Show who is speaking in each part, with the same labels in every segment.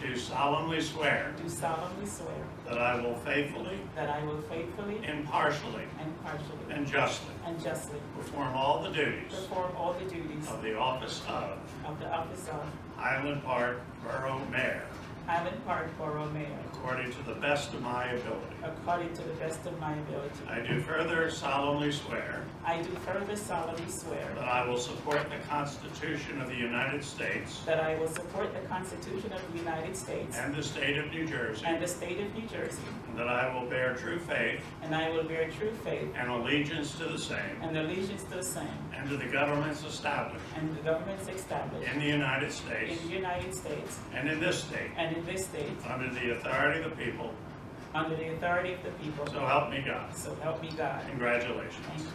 Speaker 1: do solemnly swear
Speaker 2: do solemnly swear
Speaker 1: that I will faithfully,
Speaker 2: that I will faithfully
Speaker 1: impartially,
Speaker 2: impartially
Speaker 1: and justly
Speaker 2: and justly
Speaker 1: perform all the duties
Speaker 2: perform all the duties
Speaker 1: of the office of
Speaker 2: of the office of
Speaker 1: Highland Park Borough Mayor
Speaker 2: Highland Park Borough Mayor
Speaker 1: according to the best of my ability.
Speaker 2: according to the best of my ability.
Speaker 1: I do further solemnly swear
Speaker 2: I do further solemnly swear
Speaker 1: that I will support the Constitution of the United States
Speaker 2: that I will support the Constitution of the United States
Speaker 1: and the state of New Jersey,
Speaker 2: and the state of New Jersey,
Speaker 1: and that I will bear true faith
Speaker 2: and I will bear true faith
Speaker 1: and allegiance to the same
Speaker 2: and allegiance to the same
Speaker 1: and to the governments established
Speaker 2: and the governments established
Speaker 1: in the United States
Speaker 2: in the United States
Speaker 1: and in this state
Speaker 2: and in this state
Speaker 1: under the authority of the people,
Speaker 2: under the authority of the people.
Speaker 1: so help me God.
Speaker 2: So help me God.
Speaker 1: Congratulations.
Speaker 2: Thank you.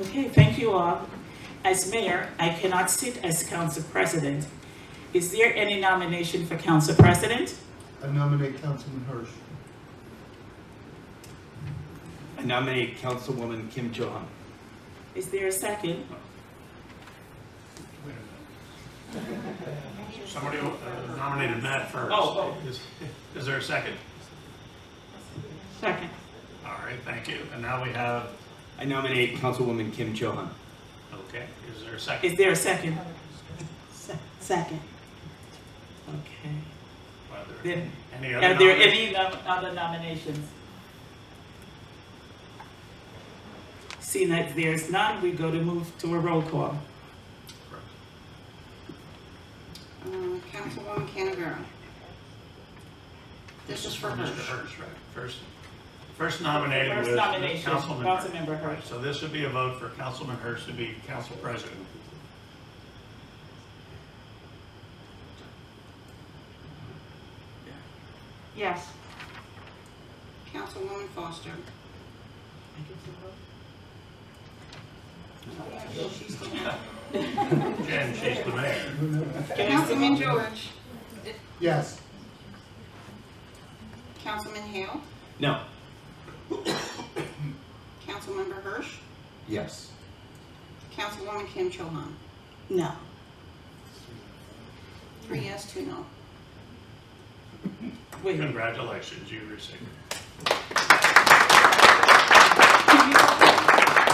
Speaker 2: Okay, thank you all. As mayor, I cannot sit as council president. Is there any nomination for council president?
Speaker 3: I nominate Councilman Hirsch.
Speaker 4: I nominate Councilwoman Kim Cho Han.
Speaker 2: Is there a second?
Speaker 1: Somebody uh, nominated Matt first.
Speaker 2: Oh,
Speaker 1: Is- Is there a second?
Speaker 2: Second.
Speaker 1: All right, thank you. And now we have,
Speaker 4: I nominate Councilwoman Kim Cho Han.
Speaker 1: okay, is there a second?
Speaker 2: Is there a second? Second. Okay.
Speaker 1: Are there
Speaker 2: Then,
Speaker 1: Any other
Speaker 2: are there
Speaker 1: nominations?
Speaker 2: any nom- other nominations? Seeing that there's none, we go to move to a roll call.
Speaker 5: Uh, Councilwoman Canavera. This is for
Speaker 1: Mr.
Speaker 5: Hirsch.
Speaker 1: Hirsch, right, first, first nominated
Speaker 2: First
Speaker 1: was
Speaker 2: nomination,
Speaker 1: Councilman
Speaker 2: Councilmember Hirsch.
Speaker 1: Right, So this would be a vote for Councilman Hirsch to be council president.
Speaker 5: Yes. Councilwoman Foster. Yeah, she's the one.
Speaker 1: Jen, she's the mayor.
Speaker 2: Can I see-
Speaker 5: Councilman George.
Speaker 3: Yes.
Speaker 5: Councilman Hale.
Speaker 4: No.
Speaker 5: Councilmember Hirsch.
Speaker 4: Yes.
Speaker 5: Councilwoman Kim Cho Han.
Speaker 2: No.
Speaker 5: Three yes, two no.
Speaker 2: Wait.
Speaker 1: Congratulations, you received.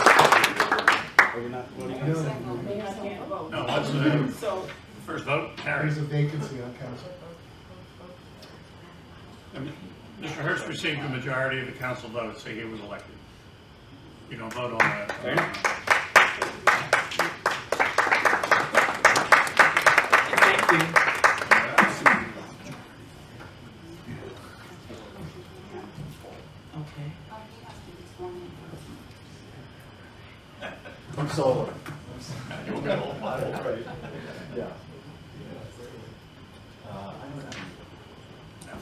Speaker 4: Are we not voting?
Speaker 3: No,
Speaker 1: No, that's the
Speaker 2: So,
Speaker 1: first vote, carries.
Speaker 3: there's a vacancy on council.
Speaker 1: Mr. Hirsch received the majority of the council votes, so he was elected. You don't vote on
Speaker 4: Fair
Speaker 1: that.
Speaker 2: thank you. Okay.
Speaker 6: I'm solar.
Speaker 1: You'll get all five.
Speaker 6: Right. Yeah. Uh, I don't know.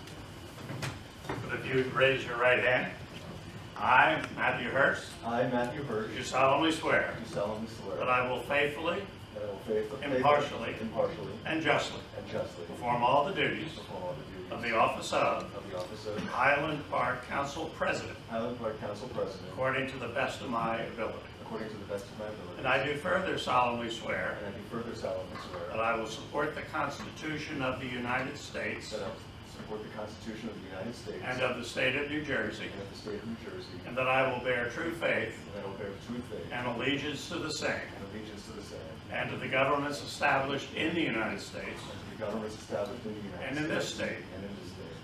Speaker 1: But if you raise your right hand, I, Matthew Hirsch,
Speaker 6: I, Matthew Burke,
Speaker 1: do solemnly swear
Speaker 6: do solemnly swear
Speaker 1: that I will faithfully
Speaker 6: that I will faithfully,
Speaker 1: Impartially.
Speaker 6: impartially,
Speaker 1: and justly
Speaker 6: and justly
Speaker 1: perform all the duties
Speaker 6: perform all the
Speaker 1: of
Speaker 6: duties
Speaker 1: the office of
Speaker 6: of the office of
Speaker 1: Highland Park Council President
Speaker 6: Highland Park Council President
Speaker 1: according to the best of my ability.
Speaker 6: according to the best of my ability.
Speaker 1: And I do further solemnly swear
Speaker 6: And I do further solemnly
Speaker 1: that
Speaker 6: swear
Speaker 1: I will support the Constitution of the United States
Speaker 6: that I will support the Constitution of the United States
Speaker 1: and of the State of New Jersey,
Speaker 6: and of the State of New Jersey,
Speaker 1: and
Speaker 6: and
Speaker 1: that I will bear true faith
Speaker 6: that I will bear true faith
Speaker 1: and allegiance to the same
Speaker 6: and allegiance to the same
Speaker 1: and to the governments established in the United States
Speaker 6: and to the governments established in the United
Speaker 1: And in
Speaker 6: States.
Speaker 1: this state.
Speaker 6: And in this state.